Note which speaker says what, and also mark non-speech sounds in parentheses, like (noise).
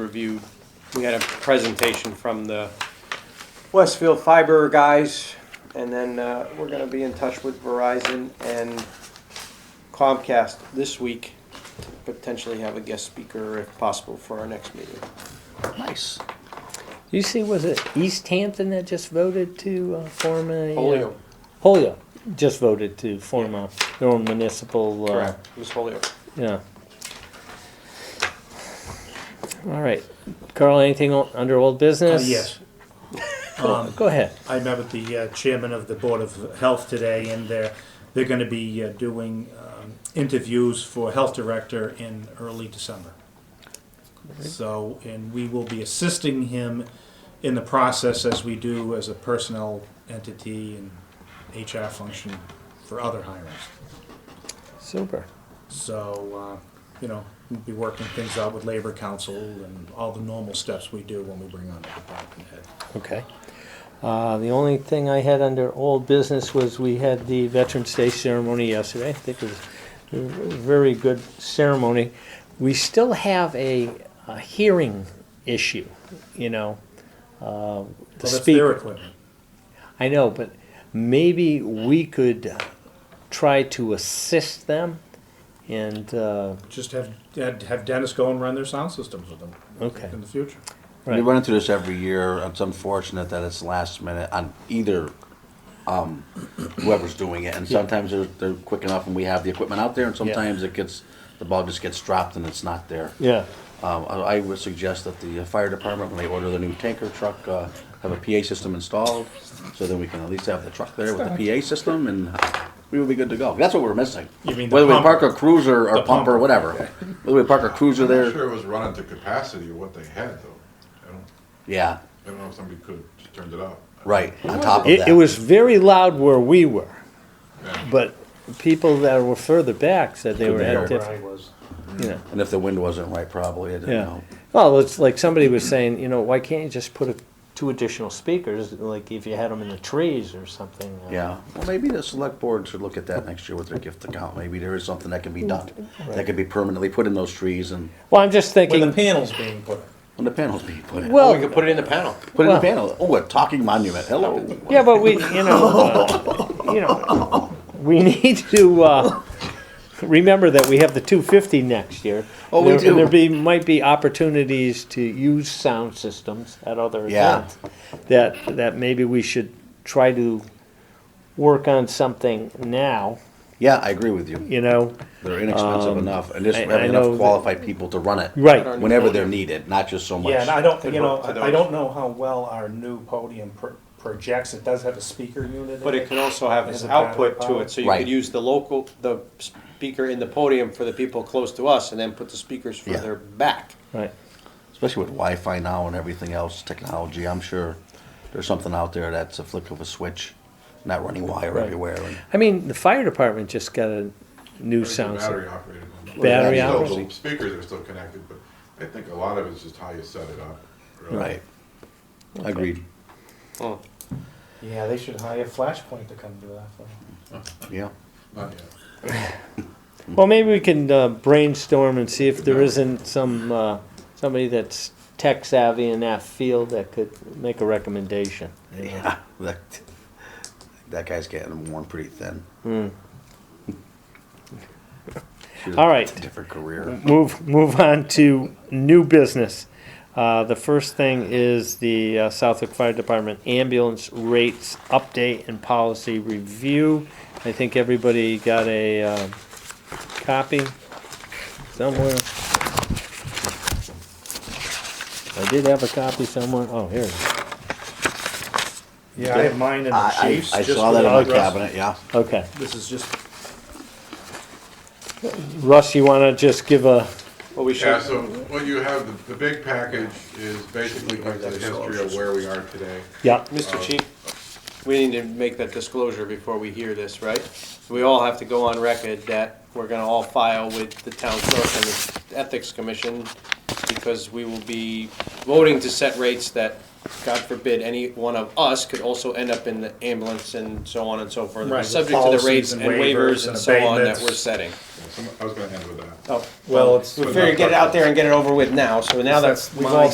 Speaker 1: reviewed, we had a presentation from the Westfield Fiber guys, and then uh, we're gonna be in touch with Verizon and Comcast this week to potentially have a guest speaker if possible for our next meeting.
Speaker 2: Nice. You see, was it East Hampton that just voted to uh, form a? uh,
Speaker 1: Holyoke,
Speaker 2: Holyoke just voted to form a, their own municipal. uh,
Speaker 1: correct, it was Holyoke.
Speaker 2: Yeah. All right, Carl, anything o- under old
Speaker 1: Uh,
Speaker 2: business?
Speaker 3: Uh, Yes.
Speaker 1: Um,
Speaker 2: Go go ahead.
Speaker 3: I met with the uh, chairman of the Board of Health today, and they're, they're gonna be uh, doing um, interviews for health director in early December. So, and we will be assisting him in the process as we do as a personnel entity and HR function for other hirings.
Speaker 2: Super.
Speaker 3: So, uh, you know, we'll be working things out with Labor Council and all the normal steps we do when we bring on a department head.
Speaker 2: Okay. Uh, the only thing I had under old business was we had the Veterans Day ceremony yesterday. I think it was a very good ceremony. We still have a, a hearing issue, you know. Uh, the
Speaker 3: Well, that's their
Speaker 2: speaker.
Speaker 3: equipment.
Speaker 2: I know, but maybe we could try to assist them and, uh,
Speaker 3: Just have, have have Dennis go and run their sound systems with them
Speaker 2: okay.
Speaker 3: in the future.
Speaker 2: Right.
Speaker 4: We run into this every year. It's unfortunate that it's last minute on either um, whoever's doing it. And sometimes they're, they're quick enough and we have the equipment out there and sometimes it gets, the ball just gets dropped and it's not there.
Speaker 2: Yeah,
Speaker 4: Um, I I would suggest that the fire department, when they order the new tanker truck, uh, have a PA system installed, so then we can at least have the truck there with the PA system, and we will be good to go. That's what we're missing.
Speaker 3: You mean the
Speaker 4: Whether we
Speaker 3: pump?
Speaker 4: park a cruiser or
Speaker 3: The
Speaker 4: pump or
Speaker 3: pump.
Speaker 4: whatever, whether we park a cruiser
Speaker 5: I'm not
Speaker 4: there,
Speaker 5: sure it was running to capacity of what they had though. I don't,
Speaker 4: yeah,
Speaker 5: I don't know if somebody could have turned it up.
Speaker 4: right, on top of
Speaker 2: it, it
Speaker 4: that.
Speaker 2: was very loud where we were,
Speaker 5: Yeah.
Speaker 2: but people that were further back said they
Speaker 4: Couldn't
Speaker 2: were
Speaker 4: hear.
Speaker 2: at
Speaker 3: Where I
Speaker 2: different,
Speaker 3: was.
Speaker 2: you know.
Speaker 4: And if the wind wasn't right, probably, I didn't
Speaker 2: Yeah.
Speaker 4: know.
Speaker 2: Well, it's like somebody was saying, you know, why can't you just put a, two additional speakers, like if you had them in the trees or something? uh,
Speaker 4: Yeah, well, maybe the select board should look at that next year with their gift account. Maybe there is something that can be done, that could be permanently put in those trees and,
Speaker 2: Well, I'm just
Speaker 3: Where the
Speaker 2: thinking.
Speaker 3: panels being put. up.
Speaker 4: when the panels be put in.
Speaker 1: Well,
Speaker 2: Well,
Speaker 1: we could put it in the panel.
Speaker 4: Put in
Speaker 2: well-
Speaker 4: a panel, oh, a talking monument, hello.
Speaker 2: yeah, but we, you know,
Speaker 4: (laughs)
Speaker 2: uh, you know, we need to uh, remember that we have the 250 next year.
Speaker 4: Oh, we
Speaker 2: there,
Speaker 4: do.
Speaker 2: There be might be opportunities to use sound systems at other
Speaker 4: Yeah.
Speaker 2: events. That that maybe we should try to work on something now.
Speaker 4: Yeah, I agree with you.
Speaker 2: You know,
Speaker 4: They're inexpensive enough, and just
Speaker 2: Um, I- I
Speaker 4: having
Speaker 2: know
Speaker 4: enough
Speaker 2: that-
Speaker 4: qualified people to run it.
Speaker 2: Right.
Speaker 4: Whenever they're needed, not just so much.
Speaker 3: Yeah, and I don't, you know,
Speaker 1: work to
Speaker 3: I I
Speaker 1: those.
Speaker 3: don't know how well our new podium pro- projects. It does have a speaker unit
Speaker 1: But
Speaker 3: in
Speaker 1: it
Speaker 3: it.
Speaker 1: can also have this
Speaker 3: As a battery
Speaker 1: output to
Speaker 3: power.
Speaker 1: it, so you
Speaker 4: Right.
Speaker 1: could use the local, the speaker in the podium for the people close to us, and then put the speakers
Speaker 4: Yeah.
Speaker 1: further back.
Speaker 2: right?
Speaker 4: Especially with Wi-Fi now and everything else, technology. I'm sure there's something out there that's a flick of a switch, not running wire
Speaker 2: Right.
Speaker 4: everywhere. And
Speaker 2: I mean, the fire department just got a new
Speaker 5: It's a
Speaker 2: sound.
Speaker 5: Battery
Speaker 2: system.
Speaker 5: operated. one.
Speaker 2: Battery
Speaker 5: Still, the
Speaker 2: operated.
Speaker 5: Speakers are still connected, but I think a lot of it's just how you set it up. really.
Speaker 4: right. Agreed.
Speaker 3: Yeah, they should hire Flashpoint to come do that for them.
Speaker 4: Yeah.
Speaker 5: Not yet.
Speaker 2: Well, maybe we can uh, brainstorm and see if there isn't some uh, somebody that's tech savvy in that field that could make a recommendation.
Speaker 4: Yeah. Ah, (laughs) That, that guy's getting worn pretty thin. Should've
Speaker 2: Hmm. All right.
Speaker 4: Different career.
Speaker 2: Move move on to new business. Uh, the first thing is the uh, Southwick Fire Department ambulance rates update and policy review. I think everybody got a uh, copy somewhere. I did have a copy somewhere. Oh, here it is.
Speaker 3: Yeah, I have mine in the
Speaker 4: I,
Speaker 3: chief's.
Speaker 4: I, I
Speaker 3: just
Speaker 4: saw
Speaker 3: for
Speaker 4: that in
Speaker 3: the
Speaker 4: my
Speaker 3: address.
Speaker 4: cabinet, yeah.
Speaker 2: Okay.
Speaker 3: This is just,
Speaker 2: Russ, you want to just give a,
Speaker 1: Well, we
Speaker 5: Yeah,
Speaker 1: should,
Speaker 5: so what you have, the, the big package is basically like the history of where we are today.
Speaker 2: yeah,
Speaker 3: Uh,
Speaker 1: Mr. Chief, we need to make that disclosure before we hear this, right? We all have to go on record that we're gonna all file with the town clerk and the ethics commission because we will be voting to set rates that, God forbid, any one of us could also end up in the ambulance and so on and so forth.
Speaker 3: Right, with
Speaker 1: Subject to the
Speaker 3: policies
Speaker 1: rates and
Speaker 3: and
Speaker 1: waivers
Speaker 3: waivers
Speaker 1: and
Speaker 3: and
Speaker 1: so on that
Speaker 3: abatements.
Speaker 1: we're setting.
Speaker 5: Some- I was gonna end with that.
Speaker 1: Oh,
Speaker 3: Well, it's-
Speaker 1: We figured get it out there and get it over with now, so now that
Speaker 3: That's
Speaker 1: we've
Speaker 3: my-
Speaker 1: all